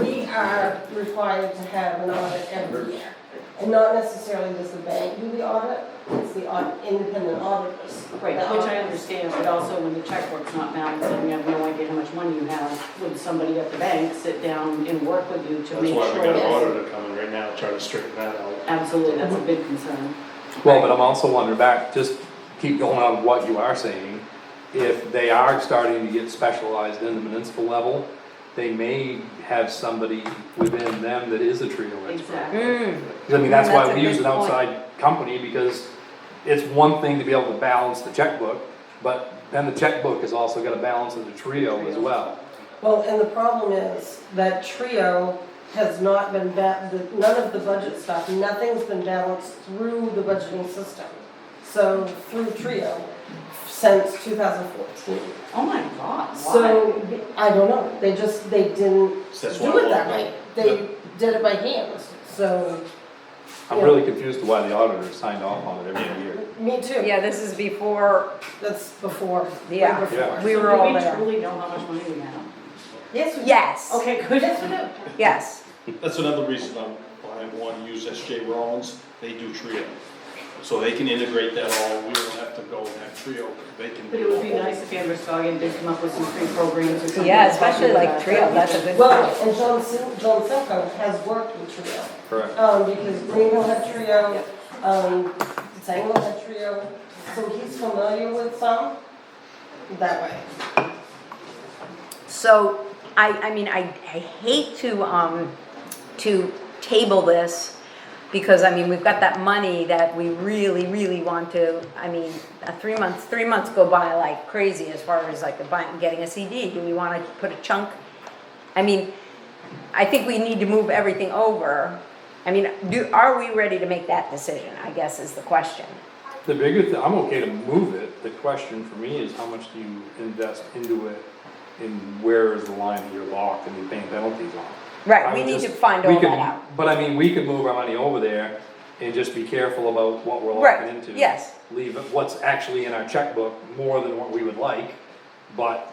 are required to have an audit every year. And not necessarily does the bank do the audit, it's the aud- independent auditors. Right, which I understand, but also when the checkbook's not balanced and you have no idea how much money you have, would somebody at the bank sit down and work with you to That's make why we got an sure? auditor coming right now, trying to straighten that out. Absolutely, that's a big concern. Well, but I'm also wondering back, just keep going on what you are saying. If they are starting to get specialized in the municipal level, they may have somebody within them that is a trio expert. Exactly. I mean, that's That's why a we use an good point. outside company, because it's one thing to be able to balance the checkbook, but then the checkbook has also got to balance of the trio as well. Well, and the problem is that trio has not been, ba- the- none of the budget stuff, nothing's been balanced through the budgeting system. So through trio since 2014. Mm-hmm. Oh my god, why? So, I don't know, they just, they didn't So that's why do it I that want way. to- They did it by hand, so, I'm really confused to why the auditor signed off on it every year. me too. Yeah, this is before, That's before, Yeah. way before. Yeah. we were Do all we there. truly know how much money we have? Yes, we Yes, Okay, good. Yes, we do. yes. That's another reason I'm, why I want to use SJ Rollins, they do trio. So they can integrate that all, we don't have to go and have trio, they can. But it would be nice if Androscoggin did come up with some free programs or something. Yeah, especially like trio, that's a good Well, point. and John Sil- John Silco has worked with trio. Correct. Um, because Greenville had trio, um, Sango had trio, so he's familiar with some that way. So, I, I mean, I, I hate to, um, to table this, because, I mean, we've got that money that we really, really want to, I mean, uh, three months, three months go by like crazy as far as like the buying, getting a CD, do we wanna put a chunk? I mean, I think we need to move everything over, I mean, do, are we ready to make that decision, I guess is the question. The bigger thing, I'm okay to move it, the question for me is how much do you invest into it? And where is the line that you're locked and you're paying penalties on? Right, I we would need to just- find we all could- that out. But I mean, we could move our money over there and just be careful about what we're Right, locking into. yes. Leave what's actually in our checkbook more than what we would like, but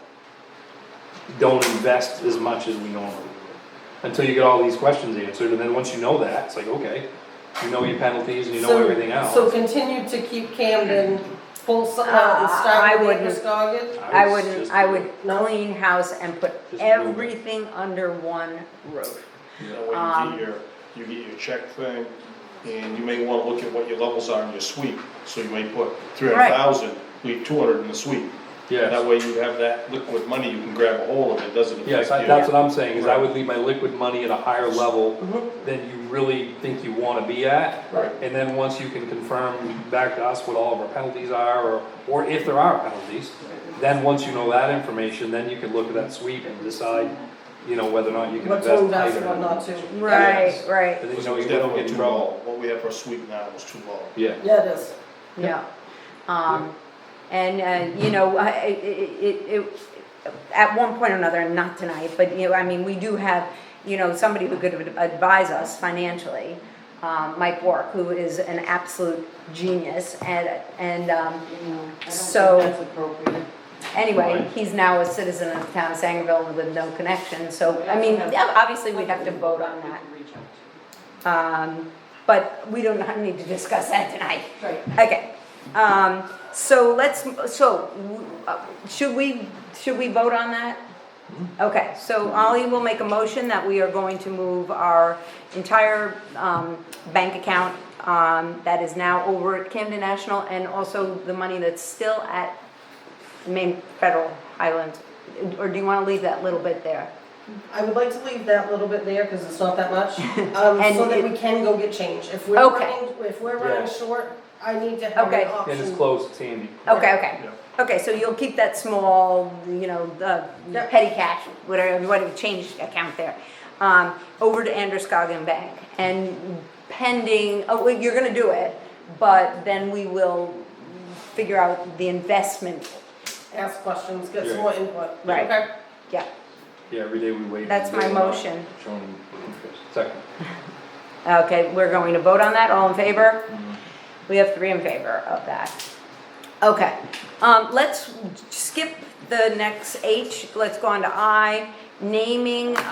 don't invest as much as we normally would. Until you get all these questions answered, and then once you know that, it's like, okay, you know your penalties and you know So- everything else. So continue to keep Camden full, s- uh, Uh, and start I with wouldn't. Androscoggin. I would wouldn't, just I do would it. clean house and put Just move it. everything under one roof. That Um, way you get your, you get your check thing, and you may wanna look at what your levels are in your sweep, so you may put three hundred thousand, leave two hundred in the sweep. Yes. That way you have that liquid money, you can grab a hold of it, doesn't affect you. Yes, I- that's what I'm saying, is I would leave my liquid money at a higher level Mm-hmm. than you really think you wanna be at. Right. And then once you can confirm back to us what all of our penalties are, or, or if there are penalties, then once you know that information, then you can look at that sweep and decide, you know, whether or not you can What's invest. to invest, either. and what not to. Right, Yes. right, And then you Because know it was you don't definitely get in too trouble. low, what we have for a sweep now was too low. Yeah, Yeah, it is. yeah. Um, and, uh, you know, I, it, it, it, at one point or another, not tonight, but, you know, I mean, we do have, you know, somebody who could advise us financially. Um, Mike Wark, who is an absolute genius and, and, um, You know, I don't think So- that's appropriate. Anyway, Right. he's now a citizen of the town of Sangerville with no connection, so, I mean, yeah, obviously we'd have to vote on that. Reach out to. Um, but we don't need to discuss that tonight. Right. Okay, um, so let's, so, uh, should we, should we vote on that? Okay, so Ollie will make a motion that we are going to move our entire, um, bank account, um, that is now over at Camden National, and also the money that's still at Maine Federal Highland, or do you wanna leave that little bit there? I would like to leave that little bit there, cause it's not that much, um, And so that it- we can go get change. If we're Okay. running, if we're Yeah. running short, I need to have Okay. an And option. and it's close, it's handy. Okay, okay. Yeah. Okay, so you'll keep that small, you know, the Yep. petty cash, whatever, whatever, change account there, um, over to Androscoggin Bank. And pending, oh, well, you're gonna do it, but then we will figure out the investment. Ask questions, get some Yeah. more input. Right. Okay. Yeah, Yeah, every day we wait. That's my They're not motion. Showing interest. Second. okay, we're going to vote on that, all in favor? We have three in favor of that. Okay, um, let's skip the next H, let's go on to I, naming